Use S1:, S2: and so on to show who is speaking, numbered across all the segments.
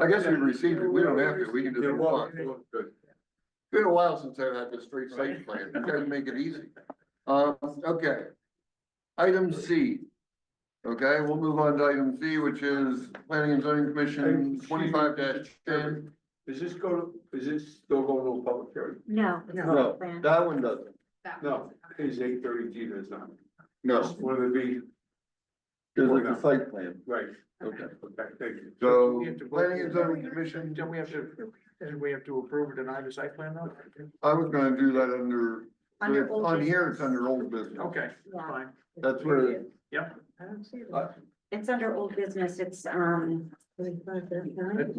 S1: I guess we received it, we don't have to, we can just
S2: Yeah,
S1: move
S2: well,
S1: on. Good. Been a while since I've had the street safety plan, you guys make it easy. Uh, okay. Item C. Okay, we'll move on to item C, which is planning and zoning commission twenty-five ten.
S2: Is this go, is this still going to a public hearing?
S3: No. it's
S1: No.
S3: not planned.
S1: That one doesn't,
S3: That
S2: No,
S3: one's not.
S2: it's eight thirty G, that's not.
S1: no,
S2: Just wanted to be,
S1: it's like a site plan,
S2: right,
S1: okay.
S2: okay, thank you.
S1: So,
S4: We have to vote.
S1: planning and zoning commission,
S4: Don't we have to, and we have to approve or deny the site plan though?
S1: I was gonna do that under,
S3: Under
S1: but
S3: old
S1: on here, it's
S3: business.
S1: under old business.
S4: Okay,
S3: Yeah.
S4: fine.
S1: That's where it-
S4: Yep.
S1: Uh,
S3: It's under old business, it's, um.
S4: I,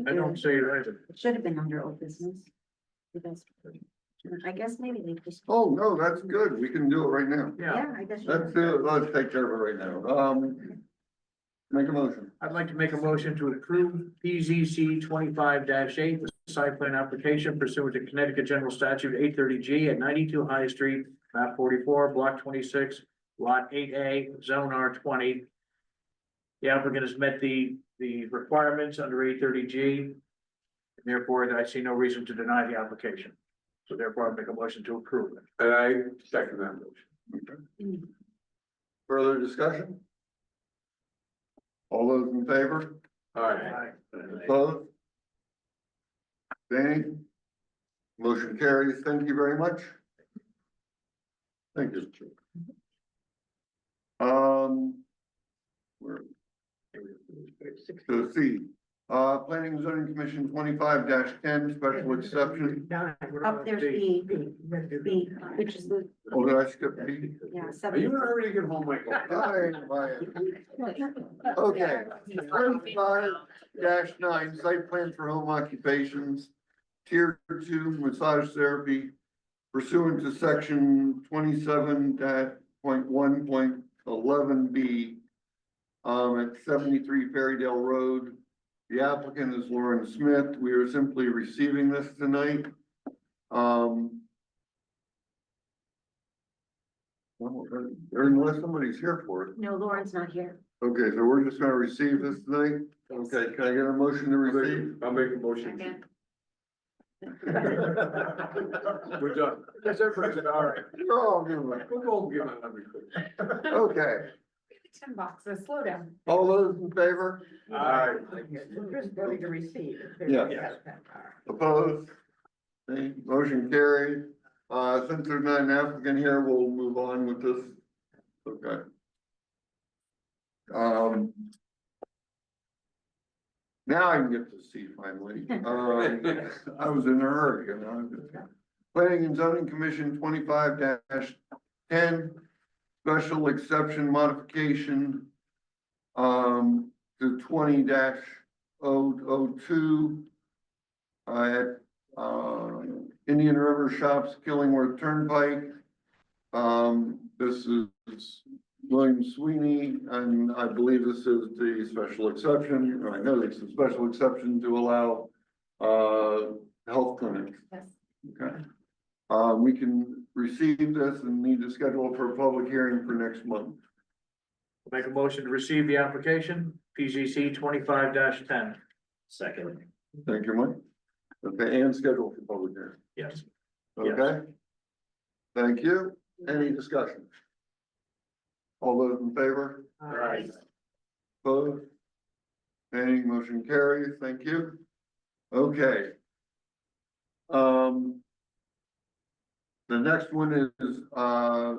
S4: I don't see it either.
S3: It should have been under old business. You guys- I guess maybe they just,
S1: Oh, no, that's good, we can do it right now.
S4: Yeah,
S3: yeah, I guess. you-
S1: Let's do, it. let's take care of it right now, um, make a motion.
S4: I'd like to make a motion to approve PZC twenty-five eight, the site plan application pursuant to Connecticut General Statute eight thirty G at ninety-two High Street, map forty-four, block twenty-six, lot eight A, zone R twenty. The applicant has met the, the requirements under eight thirty G. Therefore, I see no reason to deny the application. So therefore, I make a motion to approve it.
S2: And I second that motion.
S3: Mm.
S1: Further discussion? All those in favor,
S2: All right.
S1: opposed? Danny? Motion carries, thank you very much. Thank you. Um. Where? So C, uh, planning and zoning commission twenty-five ten, special exception,
S3: Up there's B, B, which is the,
S1: oh, did I skip B?
S2: Are you
S3: yeah,
S2: in a
S3: seven.
S2: hurry to get home, Michael?
S1: Sorry,
S3: um,
S1: Ryan. Okay, thirty-five dash nine, site plan for home occupations, tier two massage therapy pursuant to section twenty-seven dot point one point eleven B um, at seventy-three Ferrydale Road. The applicant is Lauren Smith. We are simply receiving this tonight. Um. well, uh, Unless somebody's here for it.
S3: No, Lauren's not here.
S1: Okay, so we're just gonna receive this tonight? Okay, can I get a motion to receive?
S2: I'll make a motion.
S3: Second.
S2: We're done. That's everybody, all right.
S1: You're all good.
S2: We'll go and get my number quick.
S1: Okay,
S3: Ten boxes, slow down.
S1: all those in favor,
S2: All right.
S5: Just voting to receive.
S1: Yeah.
S2: Yeah.
S1: opposed? Okay, Motion carried. Uh, since there's not an applicant here, we'll move on with this. Okay. Um. Now I can get to C finally. Um, I was in a hurry, you know. Planning and zoning commission twenty-five ten, special exception modification. Um, to twenty oh 2 Uh, at, uh, Indian River Shops, Killingworth Turnpike. Um, this is William Sweeney, and I believe this is the special exception, or I know this is a special exception to allow, uh, health clinics.
S3: Yes.
S1: Okay. Uh, we can receive this and need to schedule for a public hearing for next month.
S4: Make a motion to receive the application, PZC twenty-five ten. Second.
S1: Thank you, Mike. Okay, and schedule for public hearing,
S4: Yes.
S1: okay? Thank you. Any discussion? All those in favor?
S4: All
S2: right.
S1: Opposed? Any motion carries, thank you. Okay. Um. The next one is, uh,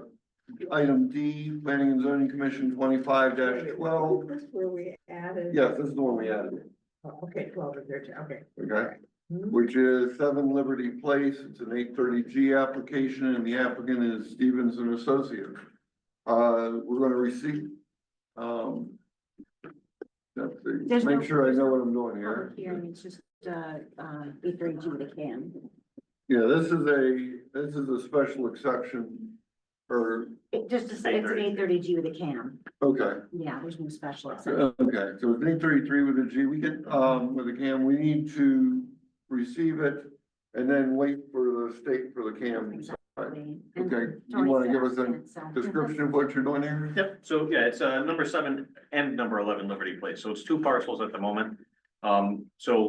S1: item D, Planning and Zoning Commission twenty-five twelve.
S5: That's where we added.
S1: Yes, this is the one we added,
S5: Oh, Okay, twelve or thirteen, okay.
S1: okay? Which is seven Liberty Place, it's an eight thirty G application, and the applicant is Stevens and Associates. Uh, we're gonna receive, um. Let's
S3: There's
S1: see,
S3: no-
S1: make sure I know what I'm doing here.
S3: Public hearing, it's just, uh, uh, B three G they can.
S1: Yeah, this is a, this is a special exception, or,
S3: It just, it's an eight thirty G with a cam. Uh,
S1: okay,
S3: Yeah, there's no special. exception.
S1: okay, so it's eight thirty-three with a G, we get, um, with a cam, we need to receive it and then wait for the state for the cam.
S3: Exactly. And
S1: Okay, you
S3: Tony
S1: wanna
S3: said
S1: give us a
S3: it, so-
S1: description of what you're doing here?
S6: Yep, so yeah, it's uh number seven and number eleven Liberty Place, so it's two parcels at the moment. Um, so